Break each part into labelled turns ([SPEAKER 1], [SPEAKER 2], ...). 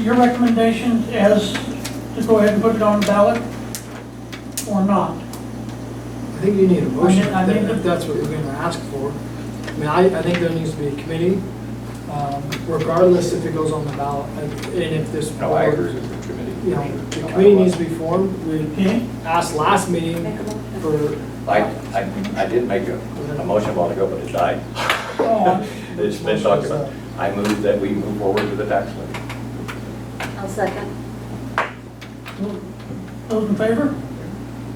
[SPEAKER 1] your recommendation is to go ahead and put it on the ballot or not?
[SPEAKER 2] I think you need a motion,
[SPEAKER 1] I need- I need-
[SPEAKER 2] if that's what you're gonna ask for. I mean, I, I think there needs to be a committee, um, regardless if it goes on the ballot, and and if this.
[SPEAKER 3] No, I agree
[SPEAKER 2] board,
[SPEAKER 3] with the committee.
[SPEAKER 2] You know, the committee needs to be formed, we
[SPEAKER 1] Okay?
[SPEAKER 2] asked last meeting for,
[SPEAKER 3] I, I, I did make a, a motion a while ago, but it died.
[SPEAKER 1] Oh.
[SPEAKER 3] It's been talked about. I move that we move forward to the tax levy.
[SPEAKER 4] I'll second.
[SPEAKER 1] Those in favor?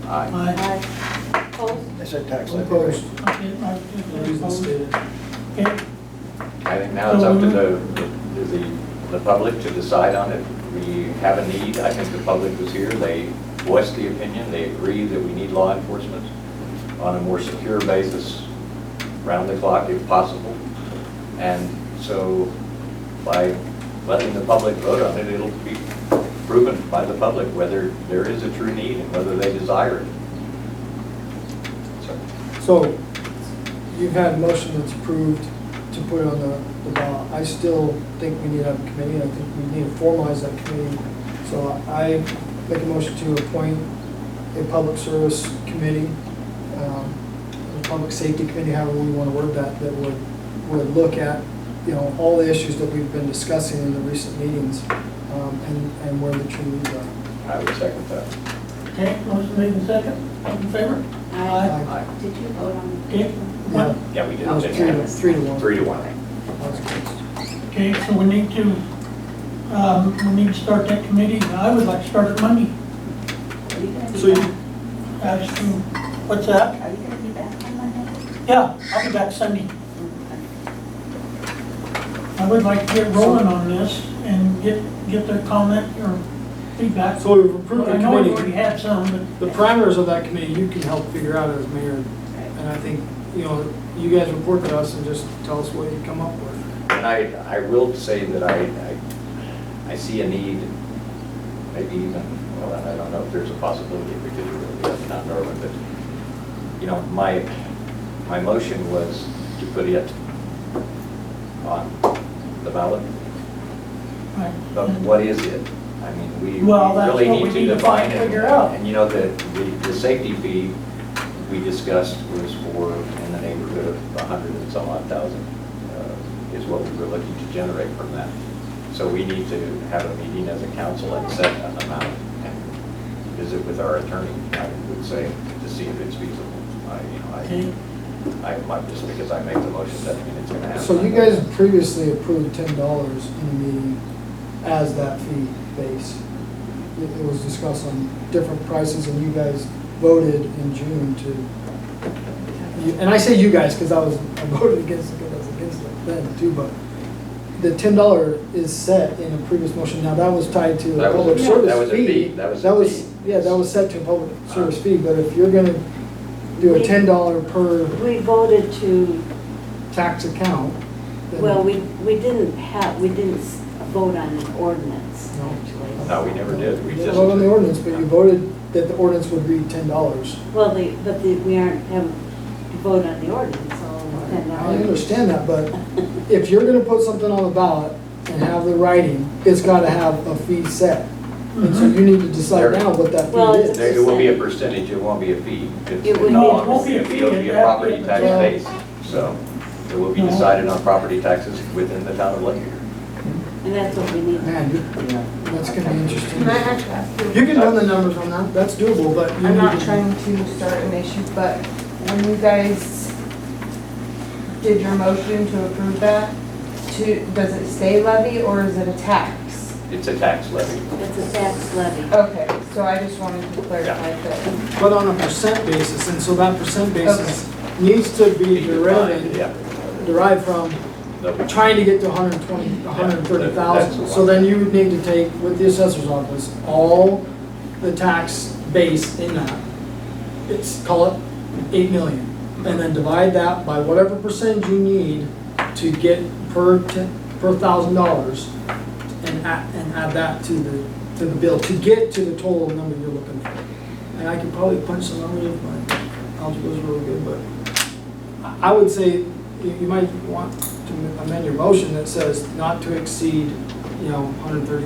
[SPEAKER 3] Aye.
[SPEAKER 4] Aye. Opposed?
[SPEAKER 5] They said tax levy, right?
[SPEAKER 2] opposed,
[SPEAKER 1] Okay, I-
[SPEAKER 2] reason stated.
[SPEAKER 1] Okay,
[SPEAKER 3] I think now it's up to the, to the, the public to decide on it. We have a need, I think the public was here, they voiced the opinion, they agree that we need law enforcement on a more secure basis, round the clock if possible. And so by letting the public vote on it, it'll be proven by the public whether there is a true need and whether they desire it. So,
[SPEAKER 2] So, you've had a motion that's approved to put it on the, the ballot. I still think we need to have a committee, and I think we need to formalize that committee. So I make a motion to appoint a public service committee, um, a public safety committee, however we want to word that, that would, would look at, you know, all the issues that we've been discussing in the recent meetings, um, and, and where the true needs are.
[SPEAKER 3] I would second that.
[SPEAKER 1] okay, motion made in second, those in favor?
[SPEAKER 4] Aye.
[SPEAKER 2] Aye.
[SPEAKER 4] Did you vote on?
[SPEAKER 1] Okay,
[SPEAKER 2] Yeah.
[SPEAKER 1] what,
[SPEAKER 3] Yeah, we did.
[SPEAKER 2] That was three to, three to one.
[SPEAKER 3] Three to one.
[SPEAKER 2] That was close.
[SPEAKER 1] okay, so we need to, um, we need to start that committee, I would like to start it Monday.
[SPEAKER 4] Are you gonna be
[SPEAKER 2] So you-
[SPEAKER 4] back?
[SPEAKER 1] Ask them, what's that?
[SPEAKER 4] Are you gonna be back on Monday?
[SPEAKER 1] Yeah, I'll be back Sunday. I would like to get rolling on this and get, get their comment or feedback.
[SPEAKER 2] So we've approved the
[SPEAKER 1] I know we
[SPEAKER 2] committee.
[SPEAKER 1] already had some, but
[SPEAKER 2] The primaries of that committee, you can help figure out as mayor, and I think, you know, you guys report to us and just tell us what you come up with.
[SPEAKER 3] And I, I will say that I, I, I see a need, maybe even, well, I don't know if there's a possibility we could do it, that's not Norwood, but, you know, my, my motion was to put it on the ballot, but
[SPEAKER 1] Right.
[SPEAKER 3] what is it? I mean, we we
[SPEAKER 1] Well, that's
[SPEAKER 3] really
[SPEAKER 1] what we
[SPEAKER 3] need
[SPEAKER 1] need to
[SPEAKER 3] to define
[SPEAKER 1] find-
[SPEAKER 3] it.
[SPEAKER 1] figure out.
[SPEAKER 3] And you know, the, the, the safety fee we discussed was for in the neighborhood of a hundred and some odd thousand, uh, is what we were looking to generate from that. So we need to have a meeting as a council and set an amount and visit with our attorney, I would say, to see if it's feasible. I, you
[SPEAKER 1] Okay.
[SPEAKER 3] know, I, I might, just because I make the motion, doesn't mean it's gonna happen.
[SPEAKER 2] So you guys previously approved ten dollars in the meeting as that fee base. It it was discussed on different prices, and you guys voted in June to, you- and I say you guys, because I was, I voted against it, because I was against it then too, but the ten dollar is set in a previous motion. Now, that was tied to a
[SPEAKER 3] That was a-
[SPEAKER 2] public
[SPEAKER 3] that
[SPEAKER 2] service
[SPEAKER 3] was a
[SPEAKER 2] fee.
[SPEAKER 3] fee, that was a fee.
[SPEAKER 2] Yeah, that was set to a public service
[SPEAKER 3] Uh-huh.
[SPEAKER 2] fee, but if you're gonna do a ten dollar per
[SPEAKER 6] We voted to,
[SPEAKER 2] tax account, then.
[SPEAKER 6] well, we, we didn't have, we didn't s- vote on an ordinance,
[SPEAKER 2] No.
[SPEAKER 6] actually.
[SPEAKER 3] No, we never did. We
[SPEAKER 2] You
[SPEAKER 3] just.
[SPEAKER 2] didn't vote on the ordinance, but you voted that the ordinance would be ten dollars.
[SPEAKER 6] Well, the, but the, we aren't, haven't voted on the ordinance, so
[SPEAKER 2] I
[SPEAKER 6] uh, then now.
[SPEAKER 2] understand that, but if you're gonna put something on the ballot and have the writing, it's gotta have a fee set. And so you need to decide now what that
[SPEAKER 6] Well,
[SPEAKER 2] fee is.
[SPEAKER 3] There- It will be a percentage, it won't be a fee. It's-
[SPEAKER 6] It would
[SPEAKER 3] no,
[SPEAKER 6] be-
[SPEAKER 1] it won't be a fee,
[SPEAKER 3] It'll be a
[SPEAKER 1] it'd have to
[SPEAKER 3] property
[SPEAKER 1] be-
[SPEAKER 3] tax
[SPEAKER 2] Yeah.
[SPEAKER 3] base, so it will be
[SPEAKER 1] No.
[SPEAKER 3] decided on property taxes within the town of Lake.
[SPEAKER 6] And that's what we need.
[SPEAKER 2] Man, you- yeah, that's gonna be interesting.
[SPEAKER 7] Can I actually ask
[SPEAKER 2] You
[SPEAKER 7] you?
[SPEAKER 2] can run the numbers on that, that's doable, but you
[SPEAKER 7] I'm not
[SPEAKER 2] need to-
[SPEAKER 7] trying to start an issue, but when you guys did your motion to approve that, to, does it say levy or is it a tax?
[SPEAKER 3] It's a tax levy.
[SPEAKER 6] It's a tax levy.
[SPEAKER 7] Okay, so I just wanted to clarify that.
[SPEAKER 2] But on a percent basis, and so that percent basis needs to be derived,
[SPEAKER 3] Yeah.
[SPEAKER 2] derived from
[SPEAKER 3] The-
[SPEAKER 2] trying to get to 120, 130,000. So then you would need to take, with the assessor's office, all the tax base in that. It's, call it 8 million. And then divide that by whatever percentage you need to get per, ten- per thousand dollars and add, and add that to the, to the bill, to get to the total number you're looking for. And I could probably punch some numbers if my algebra's really good, but. I I would say you you might want to amend your motion that says not to exceed, you know, 130